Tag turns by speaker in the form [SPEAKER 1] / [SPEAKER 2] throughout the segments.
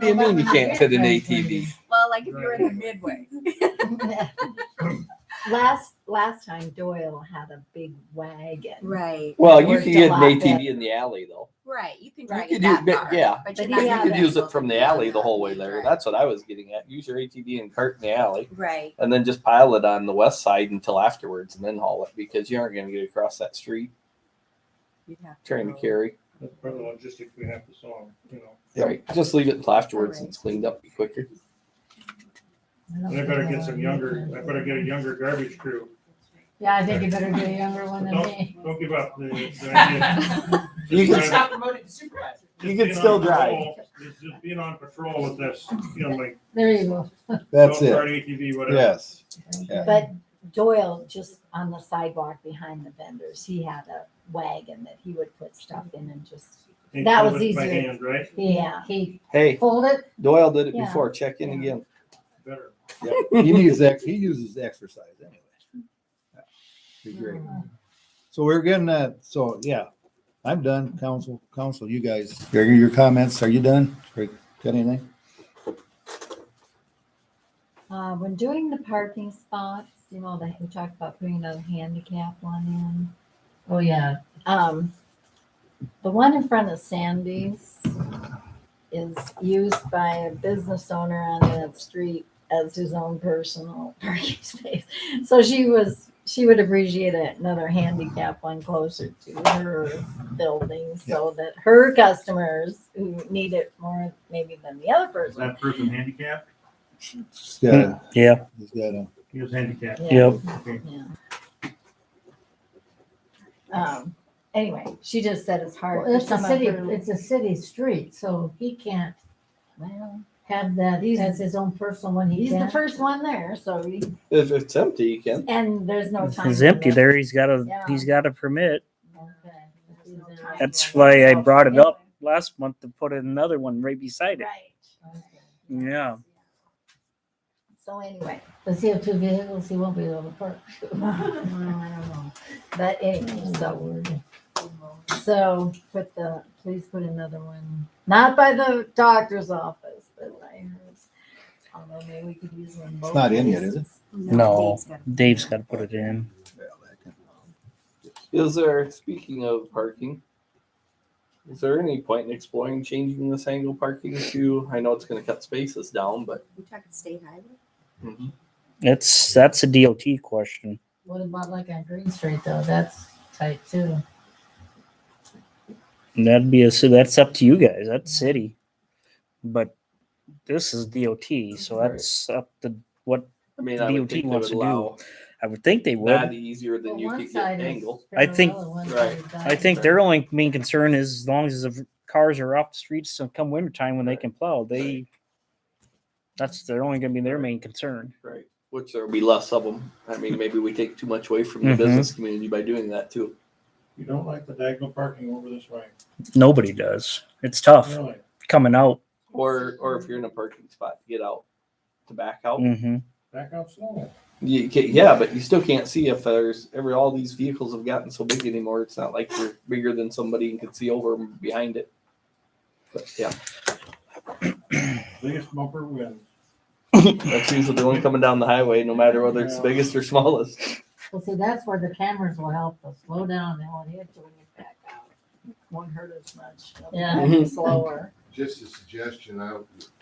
[SPEAKER 1] What do you mean you can't fit an ATV?
[SPEAKER 2] Well, like if you're in the midway.
[SPEAKER 3] Last, last time Doyle had a big wagon.
[SPEAKER 2] Right,
[SPEAKER 1] Well, you
[SPEAKER 3] Worked
[SPEAKER 1] can
[SPEAKER 3] a
[SPEAKER 1] get an
[SPEAKER 3] lot
[SPEAKER 1] ATV in the alley though.
[SPEAKER 2] right. You can
[SPEAKER 1] You
[SPEAKER 2] drive
[SPEAKER 1] could
[SPEAKER 2] it
[SPEAKER 1] use
[SPEAKER 2] that
[SPEAKER 1] bit-
[SPEAKER 2] far.
[SPEAKER 1] yeah.
[SPEAKER 3] But
[SPEAKER 2] but you're not
[SPEAKER 3] you
[SPEAKER 2] gonna
[SPEAKER 3] Yeah,
[SPEAKER 1] You could
[SPEAKER 2] be
[SPEAKER 1] use
[SPEAKER 2] able
[SPEAKER 1] it from
[SPEAKER 2] to
[SPEAKER 1] the
[SPEAKER 2] go
[SPEAKER 1] alley the
[SPEAKER 2] down
[SPEAKER 1] whole way
[SPEAKER 2] that
[SPEAKER 1] there.
[SPEAKER 2] right.
[SPEAKER 1] That's what I was getting at. Use your ATV and cart in the alley
[SPEAKER 2] Right,
[SPEAKER 1] and then just pile it on the west side until afterwards and then haul it because you aren't going to get across that street
[SPEAKER 2] you'd have to
[SPEAKER 1] trying to
[SPEAKER 2] go.
[SPEAKER 1] carry.
[SPEAKER 4] That's part of the logistics we have to solve, you know.
[SPEAKER 1] Right. Just leave it until afterwards and it's cleaned up quicker.
[SPEAKER 4] And I better get some younger, I better get a younger garbage crew.
[SPEAKER 3] Yeah, I think you better get a younger one than me.
[SPEAKER 4] Don't give up. The- the idea-
[SPEAKER 1] You
[SPEAKER 4] Just
[SPEAKER 1] can
[SPEAKER 4] trying-
[SPEAKER 5] not promoted to supervisor.
[SPEAKER 4] just
[SPEAKER 1] you can
[SPEAKER 4] being on
[SPEAKER 1] still drive.
[SPEAKER 4] patrol- Just just being on patrol with this, you know, like.
[SPEAKER 3] There you go.
[SPEAKER 6] That's
[SPEAKER 4] don't
[SPEAKER 6] it.
[SPEAKER 4] Start ATV, whatever.
[SPEAKER 6] Yes. Yeah.
[SPEAKER 3] But Doyle, just on the sidewalk behind the vendors, he had a wagon that he would put stuff in and just,
[SPEAKER 4] Can't
[SPEAKER 3] That was
[SPEAKER 4] do it By
[SPEAKER 3] easier.
[SPEAKER 4] hand, right?
[SPEAKER 3] yeah, he
[SPEAKER 1] Hey,
[SPEAKER 3] folded.
[SPEAKER 1] Doyle did it
[SPEAKER 3] Yeah.
[SPEAKER 1] before. Check in again.
[SPEAKER 4] Better.
[SPEAKER 6] He needs, ex- he uses exercise anyway. Yeah. Be great. So we're getting that, so yeah, I'm done. Council, council, you guys, your, your comments, are you done? Or Got anything?
[SPEAKER 3] Uh, when doing the parking spots, you know, that we talked about putting another handicap one in.
[SPEAKER 7] Oh, yeah.
[SPEAKER 3] Um, the one in front of Sandy's is used by a business owner on that street as his own personal parking space. So she was, she would appreciate it, another handicap one closer to her building so that her customers who need it more maybe than the other
[SPEAKER 4] Is
[SPEAKER 3] person.
[SPEAKER 4] that person handicapped?
[SPEAKER 6] He's got a-
[SPEAKER 8] Yeah.
[SPEAKER 6] He's got uh, a,
[SPEAKER 4] He was handicapped.
[SPEAKER 3] Yeah.
[SPEAKER 8] Yep.
[SPEAKER 4] Okay.
[SPEAKER 3] Yeah. Um, anyway, she just said it's hard. for
[SPEAKER 7] It's a
[SPEAKER 3] some of
[SPEAKER 7] city,
[SPEAKER 3] her-
[SPEAKER 7] it's a city street, so he can't
[SPEAKER 3] Well,
[SPEAKER 7] have that
[SPEAKER 3] He's-
[SPEAKER 7] as his own personal one. He
[SPEAKER 3] He's the
[SPEAKER 7] can't.
[SPEAKER 3] first one there, so he,
[SPEAKER 1] If it's empty, you can.
[SPEAKER 3] and there's no time.
[SPEAKER 8] It's empty
[SPEAKER 3] limit.
[SPEAKER 8] there. He's got a,
[SPEAKER 3] Yeah.
[SPEAKER 8] he's got a permit.
[SPEAKER 3] Okay. There's no time
[SPEAKER 8] That's
[SPEAKER 3] limit.
[SPEAKER 8] why I brought it up last month to put another one right beside it.
[SPEAKER 3] Right. Okay.
[SPEAKER 8] Yeah.
[SPEAKER 3] So anyway,
[SPEAKER 7] Does he have two vehicles? He won't be able to park.
[SPEAKER 3] well, I don't know, but anyway, so, so put the, please put another one, not by the doctor's office, but I heard. Although maybe we could use one. both
[SPEAKER 6] not in yet, is it?
[SPEAKER 3] places.
[SPEAKER 8] No.
[SPEAKER 2] Dave's got-
[SPEAKER 8] Dave's got to put it in.
[SPEAKER 1] Is there, speaking of parking, is there any point in exploring changing this angle parking to, I know it's going to cut spaces down, but
[SPEAKER 2] You talking state highway?
[SPEAKER 8] It's, that's a DOT question.
[SPEAKER 7] What about like on Green Street though? That's tight too.
[SPEAKER 8] And that'd be a, so that's up to you guys. That's city. But this is DOT, so
[SPEAKER 1] Right.
[SPEAKER 8] that's up to what
[SPEAKER 1] I mean, I would
[SPEAKER 8] DOT
[SPEAKER 1] think they
[SPEAKER 8] wants
[SPEAKER 1] would
[SPEAKER 8] to do.
[SPEAKER 1] allow
[SPEAKER 8] I would think they
[SPEAKER 1] that
[SPEAKER 8] would.
[SPEAKER 1] easier than
[SPEAKER 7] Well,
[SPEAKER 1] you
[SPEAKER 7] one
[SPEAKER 1] could get
[SPEAKER 7] side is
[SPEAKER 1] angle.
[SPEAKER 8] I think-
[SPEAKER 7] parallel and one
[SPEAKER 1] right.
[SPEAKER 7] side is
[SPEAKER 8] I think their only main concern is as long as the cars are off the streets so come wintertime when they can plow, they, that's, they're only going to be their main concern.
[SPEAKER 1] Right. Which there'll be less of them. I mean, maybe we take too much away from the
[SPEAKER 8] Mhm.
[SPEAKER 1] business community by doing that too.
[SPEAKER 4] You don't like the diagonal parking over this way,
[SPEAKER 8] Nobody does. It's tough
[SPEAKER 4] really?
[SPEAKER 8] coming out.
[SPEAKER 1] Or, or if you're in a parking spot to get out, to back out.
[SPEAKER 8] hmm
[SPEAKER 4] Back out slow.
[SPEAKER 1] You can, yeah, but you still can't see if there's every all these vehicles have gotten so big anymore. It's not like you're bigger than somebody and can see over 'em behind it. But yeah,
[SPEAKER 4] Biggest bumper wins.
[SPEAKER 1] that's usually the one coming down the highway, no matter whether it's the biggest or smallest.
[SPEAKER 7] Well, see, that's where the cameras will help us slow down and won't hit you when you back out.
[SPEAKER 3] Won't hurt as much.
[SPEAKER 7] Yeah.
[SPEAKER 1] Mhm.
[SPEAKER 3] Slower.
[SPEAKER 9] just a suggestion, I,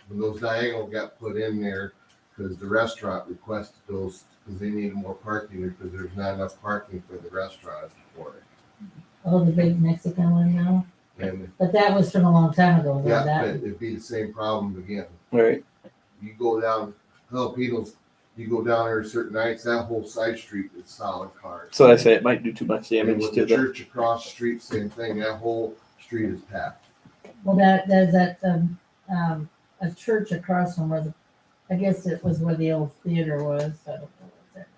[SPEAKER 9] when those diagonal got put in there, because the restaurant requested those, because they needed more parking, because there's not enough parking for the restaurant for it.
[SPEAKER 7] Oh, the big Mexican one now,
[SPEAKER 9] And,
[SPEAKER 7] but that was from a long time ago, though,
[SPEAKER 9] yeah, but
[SPEAKER 7] that,
[SPEAKER 9] it'd be the same problem again.
[SPEAKER 1] Right.
[SPEAKER 9] You go down, Filipinos, you go down there certain nights, that whole side street is solid cars.
[SPEAKER 1] So I say it might do too much
[SPEAKER 9] And
[SPEAKER 1] damage
[SPEAKER 9] with
[SPEAKER 1] to
[SPEAKER 9] the
[SPEAKER 1] the.
[SPEAKER 9] church across the street, same thing, that whole street is packed.
[SPEAKER 7] well, that, there's that, um, um, a church across from where the, I guess it was where the old theater was, I don't know what's that.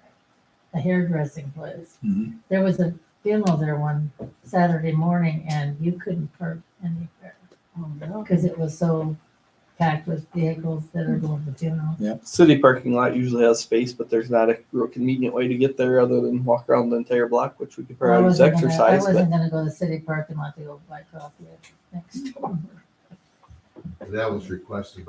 [SPEAKER 7] A hairdressing place.
[SPEAKER 6] Mhm.
[SPEAKER 7] There was a funeral there one Saturday morning and you couldn't park anywhere. Cause it was so packed with vehicles that are going to funeral.
[SPEAKER 1] City parking lot usually has space, but there's not a real convenient way to get there other than walk around the entire block, which we could
[SPEAKER 7] I
[SPEAKER 1] probably use
[SPEAKER 7] wasn't gonna-
[SPEAKER 1] exercise.
[SPEAKER 7] I
[SPEAKER 1] But
[SPEAKER 7] wasn't gonna go to the city park and let the old black coffee next door.
[SPEAKER 9] That was requested by